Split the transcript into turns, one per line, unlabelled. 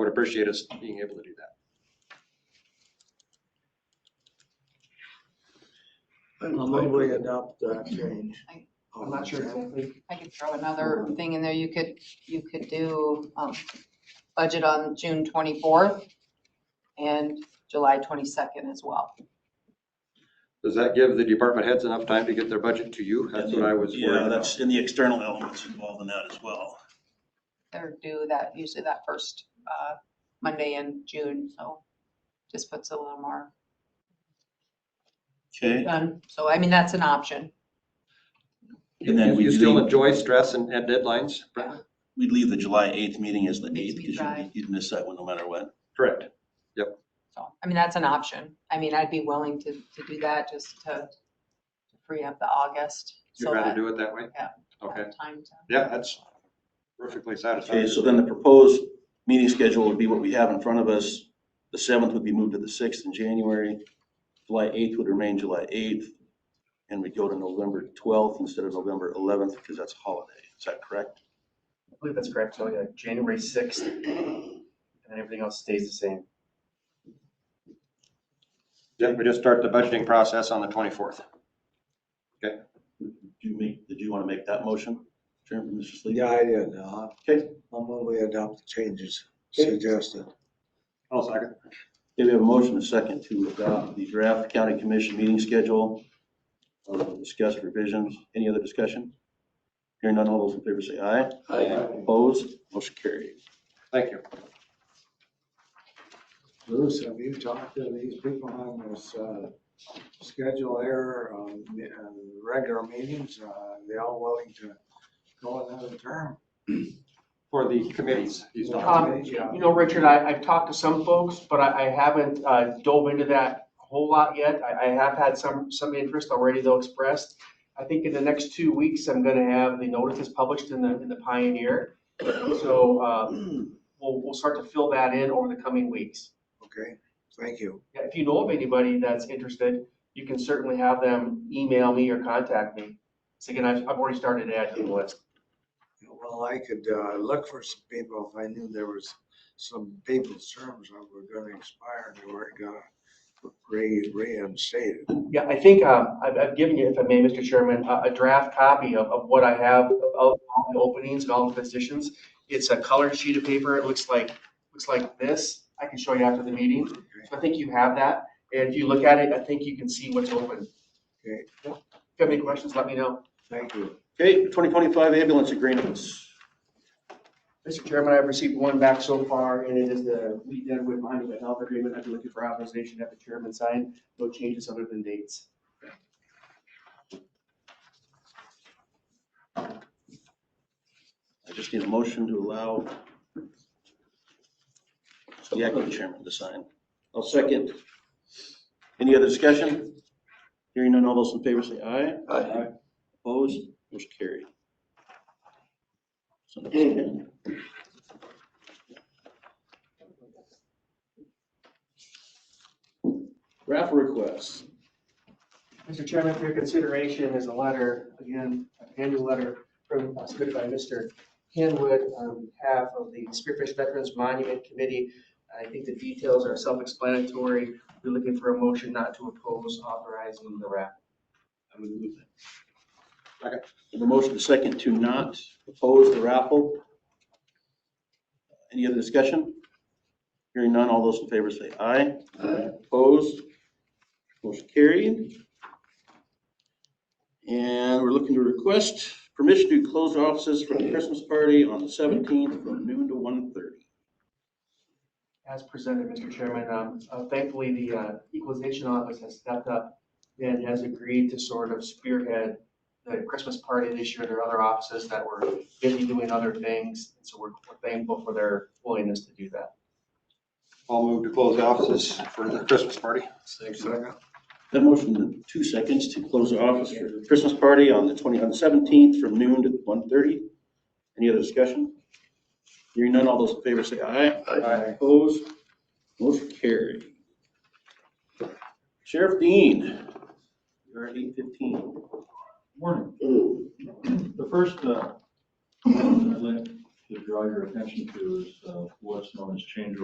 appreciate us being able to do that.
I'll move we adopt that change.
I-
I'm not sure.
I could throw another thing in there. You could, you could do um, budget on June 24th and July 22nd as well.
Does that give the department heads enough time to get their budget to you? That's what I was
Yeah,
worried
that's
about.
in the external elements involved in that as well.
They're due that, usually that first uh, Monday in June, so just puts a little more
Okay,
done. So I mean, that's an option.
You
and then we
you still
leave,
enjoy stress and and deadlines, Brenda?
we leave the July eighth meeting as the
Makes
eighth
me
because
cry.
you'd miss that one no matter what.
Correct.
So, I mean, that's an option. I mean, I'd be willing to, to do that just to to free up the August.
You'd
so
rather
that-
do it that way?
Yeah.
Okay,
that Time to.
yeah, that's perfectly satisfactory.
Okay, so then the proposed meeting schedule would be what we have in front of us. The seventh would be moved to the sixth in January. July eighth would remain July eighth. And we go to November twelfth instead of November eleventh because that's holiday. Is that correct?
I believe that's correct, so yeah, January sixth, and then everything else stays the same.
Yeah, we just start the budgeting process on the 24th.
Did you make, did you want to make that motion, Chairman, Mr. Sleep?
Yeah, I did. Uh,
Okay.
I'll move we adopt the changes
Okay.
suggested.
I'll second.
Okay, we have a motion, and a second to adopt the draft county commission meeting schedule. Uh, Discuss revisions. Any other discussion? Hearing none, all those in favor say aye.
Aye.
Opposed? Motion carried.
Thank you.
Bruce, have you talked to these people on this, uh, schedule error on the, uh, regular meetings? Uh, they all willing to go another term?
For the committees, he's not.
Um, You know, Richard, I, I've talked to some folks, but I, I haven't uh, dove into that a whole lot yet. I, I have had some, some interest already though expressed. I think in the next two weeks, I'm gonna have the notices published in the, in the Pioneer. So, um, we'll, we'll start to fill that in over the coming weeks.
Okay, thank you.
Yeah, If you know of anybody that's interested, you can certainly have them email me or contact me. So again, I've, I've already started adding the list.
Well, I could, uh, look for some people if I knew there was some people's terms that were gonna expire, they weren't gonna re, reinstated.
Yeah, I think uh, I've, I've given you, if I may, Mr. Chairman, a, a draft copy of, of what I have of all the openings and all the positions. It's a colored sheet of paper. It looks like, looks like this. I can show you after the meeting.
Okay.
So I think you have that. And if you look at it, I think you can see what's open.
Okay.
If you have any questions, let me know.
Thank you.
Okay, 2025 ambulance agreements.
Mr. Chairman, I've received one back so far, and it is the Wheat Deadwood Monument Health Agreement. I've been looking for authorization to have the chairman sign. No changes other than dates.
I just need a motion to allow the acting chairman to sign. I'll second. Any other discussion? Hearing none, all those in favor say aye. Aye. Opposed? Motion carried. So that's it. Raffle requests.
Mr. Chairman, for your consideration is a letter, again, an annual letter from, uh, submitted by Mr. Hanwood on behalf of the Spearfish Veterans Monument Committee. I think the details are self-explanatory. We're looking for a motion not to oppose authorizing the raffle.
I would move that.
Second.
The motion to second to not oppose the raffle. Any other discussion? Hearing none, all those in favor say aye. Aye. Opposed? Motion carried. And we're looking to request permission to close our offices for the Christmas party on the seventeenth from noon to 1:30.
As presented, Mr. Chairman, um, uh, thankfully, the uh, equalization office has stepped up and has agreed to sort of spearhead the Christmas party this year. There are other offices that were busy doing other things, and so we're we're thankful for their willingness to do that.
I'll move to close the offices for the Christmas party.
Second.
That motion in two seconds to close the office for the Christmas party on the twenty, on the seventeenth from noon to 1:30. Any other discussion? Hearing none, all those in favor say aye.
Aye.
Opposed? Motion carried. Sheriff Dean, you're at eight fifteen.
Morning. The first, uh, I'd like to draw your attention to is uh, what's known as change